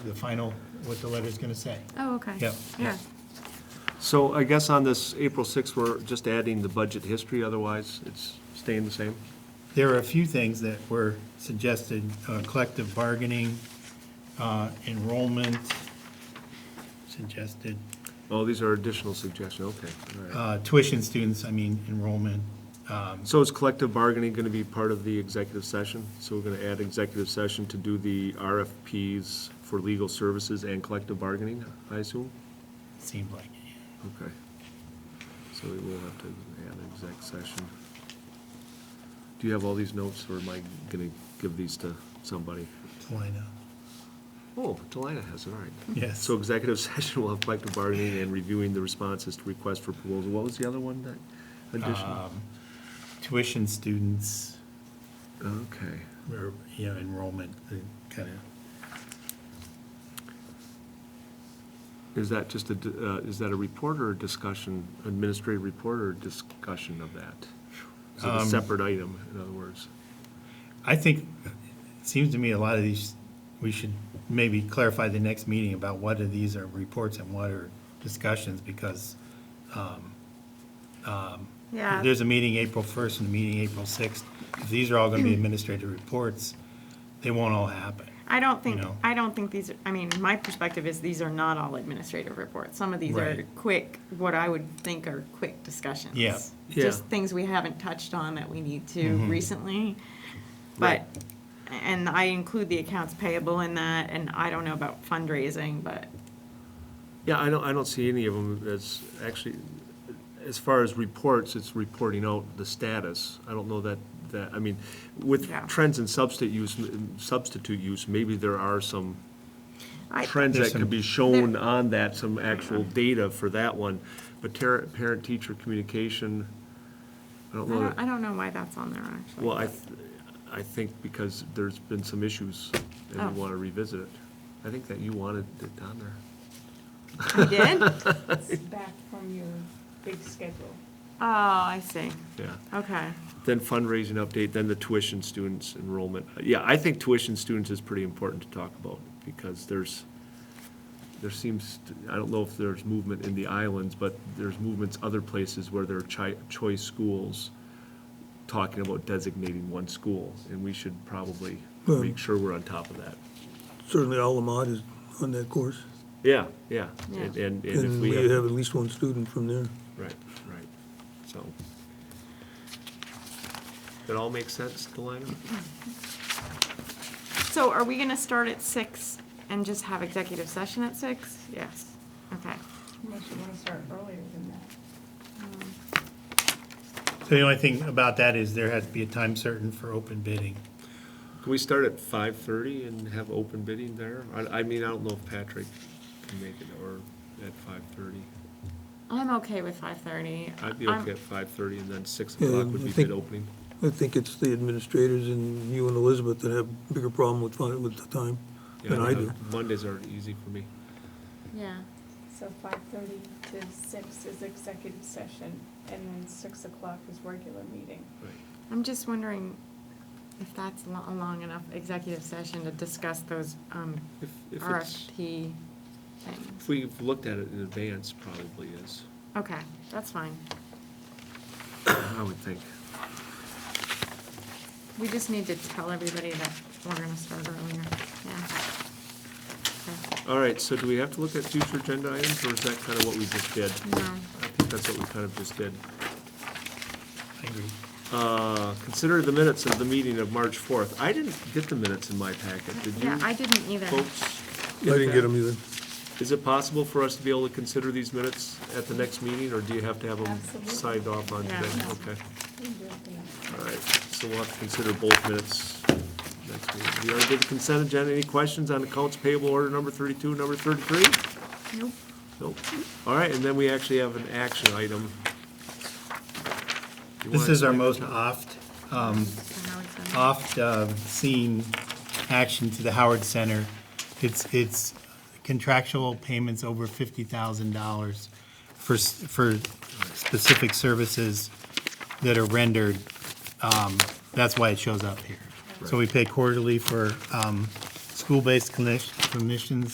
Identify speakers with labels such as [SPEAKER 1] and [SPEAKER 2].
[SPEAKER 1] the final, what the letter's gonna say.
[SPEAKER 2] Oh, okay.
[SPEAKER 1] Yep,
[SPEAKER 2] Yeah.
[SPEAKER 3] So I guess on this April 6th, we're just adding the budget history, otherwise it's staying the same?
[SPEAKER 1] There are a few things that were suggested, uh, collective bargaining, uh, enrollment, suggested,
[SPEAKER 3] Oh, these are additional suggestions, okay, all right.
[SPEAKER 1] uh, tuition students, I mean enrollment. um,
[SPEAKER 3] So is collective bargaining going to be part of the executive session? So we're going to add executive session to do the RFPs for legal services and collective bargaining, I assume?
[SPEAKER 1] Seemed like, it, yeah.
[SPEAKER 3] Okay. So we will have to add an exec session. Do you have all these notes, or am I going to give these to somebody?
[SPEAKER 1] Delina,
[SPEAKER 3] Oh, Delina has, it, all right.
[SPEAKER 1] yes.
[SPEAKER 3] So executive session will have collective bargaining and reviewing the responses to requests for proposal. What was the other one that additional?
[SPEAKER 1] um, Tuition students,
[SPEAKER 3] Okay.
[SPEAKER 1] or, you know, enrollment, uh, kind of,
[SPEAKER 3] Is that just a, d- uh, is that a report or a discussion, administrative report or discussion of that? Is it a
[SPEAKER 1] Um,
[SPEAKER 3] separate item, in other words?
[SPEAKER 1] I think, it seems to me a lot of these, we should maybe clarify the next meeting about what of these are reports and what are discussions, because
[SPEAKER 2] Yeah.
[SPEAKER 1] There's a meeting April 1st and a meeting April 6th. If these are all going to be administrative reports, they won't all happen.
[SPEAKER 2] I don't think,
[SPEAKER 1] know.
[SPEAKER 2] I don't think these, I mean, my perspective is these are not all administrative reports. Some of these are
[SPEAKER 1] Right.
[SPEAKER 2] quick, what I would think are quick discussions.
[SPEAKER 1] Yeah.
[SPEAKER 2] Just
[SPEAKER 3] Yeah.
[SPEAKER 2] things we haven't touched on that we need to recently. But,
[SPEAKER 3] Right.
[SPEAKER 2] and I include the accounts payable in that, and I don't know about fundraising, but,
[SPEAKER 3] Yeah, I don't, I don't see any of them as, actually, as far as reports, it's reporting out the status. I don't know that, that, I mean, with
[SPEAKER 2] Yeah.
[SPEAKER 3] trends in substitute use, substitute use, maybe there are some
[SPEAKER 2] I,
[SPEAKER 3] trends
[SPEAKER 1] There's
[SPEAKER 3] that could be shown on that, some actual data for that one. But ter- parent-teacher communication, I
[SPEAKER 2] I
[SPEAKER 3] don't know.
[SPEAKER 2] don't, I
[SPEAKER 3] that-
[SPEAKER 2] don't know why that's on there, actually.
[SPEAKER 3] Well, I, th- I think because there's been some issues and
[SPEAKER 2] Oh.
[SPEAKER 3] we want to revisit it. I think that you wanted it on there.
[SPEAKER 2] I did? Oh,
[SPEAKER 4] It's back from your big schedule.
[SPEAKER 2] Oh, I see.
[SPEAKER 3] Yeah.
[SPEAKER 2] Okay.
[SPEAKER 3] Then fundraising update, then the tuition students enrollment. Yeah, I think tuition students is pretty important to talk about because there's, there seems, to- I don't know if there's movement in the islands, but there's movements other places where there are chi- choice schools talking about designating one school, and we should probably
[SPEAKER 5] Well-
[SPEAKER 3] make sure we're on top of that.
[SPEAKER 5] Certainly Alamod is on that course,
[SPEAKER 3] Yeah, yeah.
[SPEAKER 2] Yeah.
[SPEAKER 3] And, and and if
[SPEAKER 5] and we
[SPEAKER 3] we
[SPEAKER 5] have
[SPEAKER 3] have,
[SPEAKER 5] at least one student from there.
[SPEAKER 3] right, right, so. That all makes sense, Delina?
[SPEAKER 2] So are we gonna start at six and just have executive session at six? Yes, okay.
[SPEAKER 4] Unless you want to start earlier than that.
[SPEAKER 1] So the only thing about that is there has to be a time certain for open bidding.
[SPEAKER 3] Can we start at five thirty and have open bidding there? I, I mean, I don't know if Patrick can make it or at five thirty.
[SPEAKER 2] I'm okay with five thirty.
[SPEAKER 3] I'd be okay at five thirty and then six
[SPEAKER 5] Yeah,
[SPEAKER 3] o'clock would
[SPEAKER 5] I
[SPEAKER 3] be
[SPEAKER 5] think-
[SPEAKER 3] bid opening.
[SPEAKER 5] I think it's the administrators and you and Elizabeth that have bigger problem with, fin- with the time
[SPEAKER 3] Yeah,
[SPEAKER 5] than I do.
[SPEAKER 3] Mondays are easy for me.
[SPEAKER 2] Yeah,
[SPEAKER 4] So five thirty to six is executive session, and then six o'clock is regular meeting.
[SPEAKER 3] Right.
[SPEAKER 2] I'm just wondering if that's lo- a long enough executive session to discuss those um,
[SPEAKER 3] If, if it's,
[SPEAKER 2] RFP things.
[SPEAKER 3] if we've looked at it in advance, probably is,
[SPEAKER 2] Okay, that's fine.
[SPEAKER 3] I would think.
[SPEAKER 2] We just need to tell everybody that we're gonna start earlier, yeah. Okay.
[SPEAKER 3] All right, so do we have to look at future agenda items or is that kind of what we just did?
[SPEAKER 2] No.
[SPEAKER 3] I think that's what we kind of just did.
[SPEAKER 1] I agree.
[SPEAKER 3] Uh, consider the minutes of the meeting of March fourth. I didn't get the minutes in my packet, did you?
[SPEAKER 2] Yeah, I didn't either.
[SPEAKER 3] Folks?
[SPEAKER 5] I didn't get them either.
[SPEAKER 3] Is it possible for us to be able to consider these minutes at the next meeting, or do you have to have them
[SPEAKER 4] Absolutely.
[SPEAKER 3] signed off on today?
[SPEAKER 2] Yeah.
[SPEAKER 3] Okay,
[SPEAKER 4] We can do it then.
[SPEAKER 3] all right, so we'll have to consider both minutes next meeting. We already did the consent agenda, any questions on accounts payable order number thirty-two, number thirty-three?
[SPEAKER 2] Nope.
[SPEAKER 3] Nope. All right, and then we actually have an action item. You
[SPEAKER 1] This
[SPEAKER 3] wanna
[SPEAKER 1] is our
[SPEAKER 3] explain
[SPEAKER 1] most
[SPEAKER 3] that?
[SPEAKER 1] oft, um,
[SPEAKER 2] So now it's done.
[SPEAKER 1] oft-seen um, action to the Howard Center. It's, it's contractual payments over $50,000 for, s- for specific services that are rendered. Um, That's why it shows up here. So we pay quarterly for um, school-based clinic- clinicians,